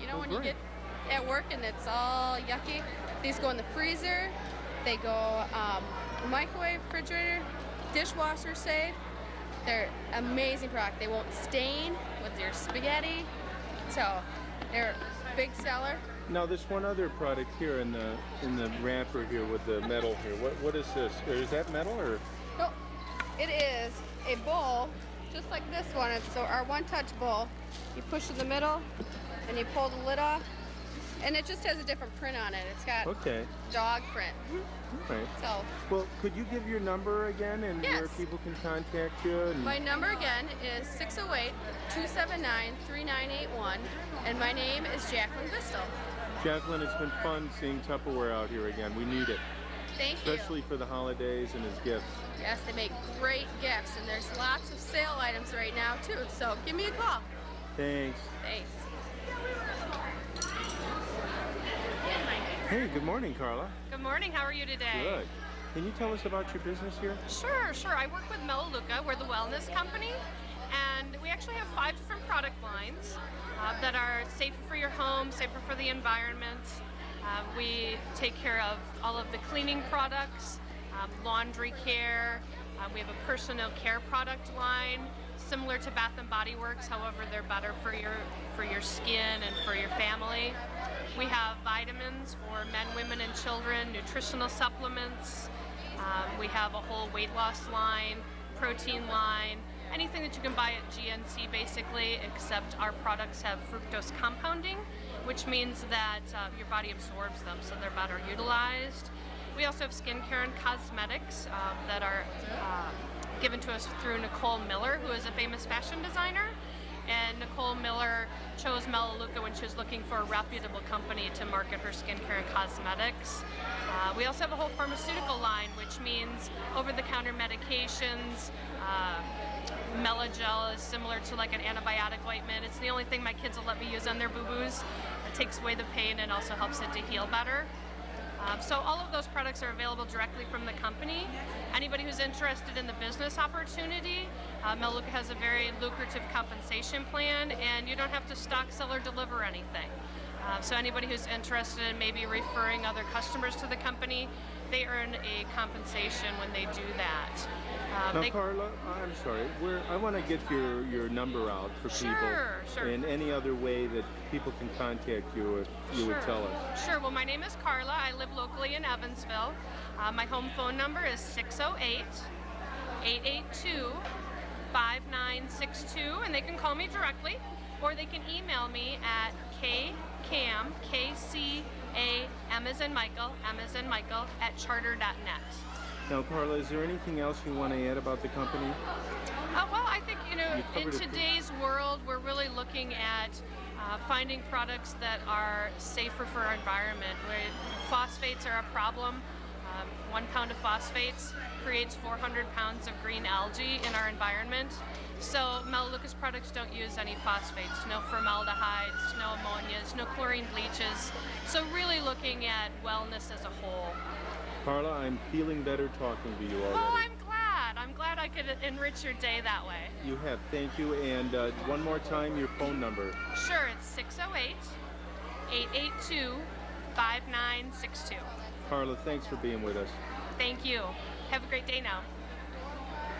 you Great. get at work and it's all yucky. These go in the freezer, they go um, microwave, refrigerator, dishwasher safe. They're amazing product. They won't stain with your spaghetti. So they're a big seller. Now, this one other product here in the in the wrapper here with the metal here. What what is this? Or is that metal or? Nope. It is a bowl, just like this one. It's so our one-touch bowl. You push in the middle, and you pull the lid off, and it just has a different print on it. It's got Okay. dog print. All right. So Well, could you give your number again and where Yes. people can contact you? And, my number again is 608-279-3981, and my name is Jacqueline Bistel. Jacqueline, it's been fun seeing Tupperware out here again. We need it, Thank especially for the holidays and as gifts. you. Yes, they make great gifts, and there's lots of sale items right now too. So give me a call. Thanks. Thanks. Hey, good morning, Carla. Good morning. How are you today? Good. Can you tell us about your business here? Sure, sure. I work with Melaleuca. We're the wellness company, and we actually have five different product lines uh, that are safer for your home, safer for the environment. Uh, we take care of all of the cleaning products, um, laundry care. Uh, we have a personal care product line similar to Bath and Body Works. However, they're better for your for your skin and for your family. We have vitamins for men, women, and children, nutritional supplements. Um, we have a whole weight loss line, protein line, anything that you can buy at GNC basically, except our products have fructose compounding, which means that uh, your body absorbs them so they're better utilized. We also have skincare and cosmetics um, that are uh, given to us through Nicole Miller, who is a famous fashion designer. And Nicole Miller chose Melaleuca when she was looking for a reputable company to market her skincare and cosmetics. Uh, we also have a whole pharmaceutical line, which means over the counter medications. Uh, Melagel is similar to like an antibiotic ointment. It's the only thing my kids will let me use on their boo boos. It takes away the pain and also helps it to heal better. Um, so all of those products are available directly from the company. Anybody who's interested in the business opportunity, uh, Melaleuca has a very lucrative compensation plan, and you don't have to stock, sell, or deliver anything. Uh, so anybody who's interested in maybe referring other customers to the company, they earn a compensation when they do that. Um, Now, they- Carla, I'm sorry. We're, I want to get your, your number out for Sure, people sure. and any other way that people can contact you if you would tell us. Sure. Well, my name is Carla. I live locally in Evansville. Uh, my home phone number is 608 882 5962, and they can call me directly or they can email me at kcam, K C A M as in Michael, M as in Michael, at charter.net. Now, Carla, is there anything else you want to add about the company? Uh, well, I think you know, You in covered it, today's world, we're really looking at uh, finding products that are safer for our environment. Where phosphates are a problem. Um, one pound of phosphates creates 400 pounds of green algae in our environment. So Melaleuca's products don't use any phosphates, no formaldehydes, no ammonias, no chlorine bleaches. So really looking at wellness as a whole. Carla, I'm feeling better talking to you already. Well, I'm glad. I'm glad I could enrich your day that way. You have. Thank you. And uh, one more time, your phone number. Sure, it's 608 882 5962. Carla, thanks for being with us. Thank you. Have a great day now.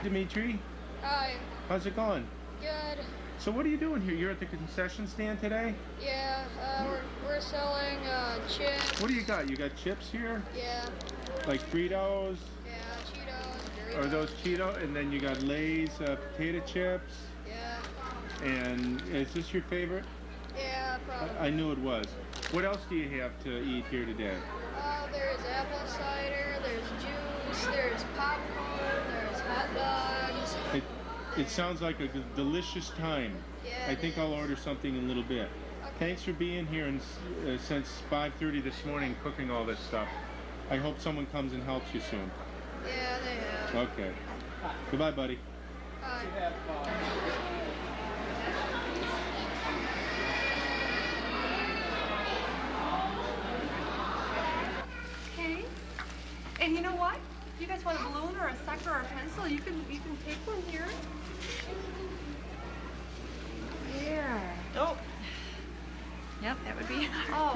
Dimitri, Hi. how's it going? Good. So, what are you doing here? You're at the concession stand today? Yeah. Uh, we're, we're selling uh, chips. What do you got? You got chips here? Yeah. Like Fritos? Yeah. Cheetos. Are those Cheeto? And then you got Lay's uh, potato chips? Yeah. And is this your favorite? Yeah. Probably. I knew it was. What else do you have to eat here today? Uh, there's apple cider, there's juice, there's popcorn, there's hot dogs. It, it sounds like a g- delicious time. Yeah, I it think I'll order something in a little bit. Thanks for being here and, s- uh, since 5:30 this morning cooking all this stuff. I hope someone comes and helps you soon. Yeah, they have. Okay. Goodbye, buddy. Uh, Okay. And you know what? If you guys want a balloon or a sucker or a pencil, you can you can take one here. Here. Oh. Yep, that would be. Oh,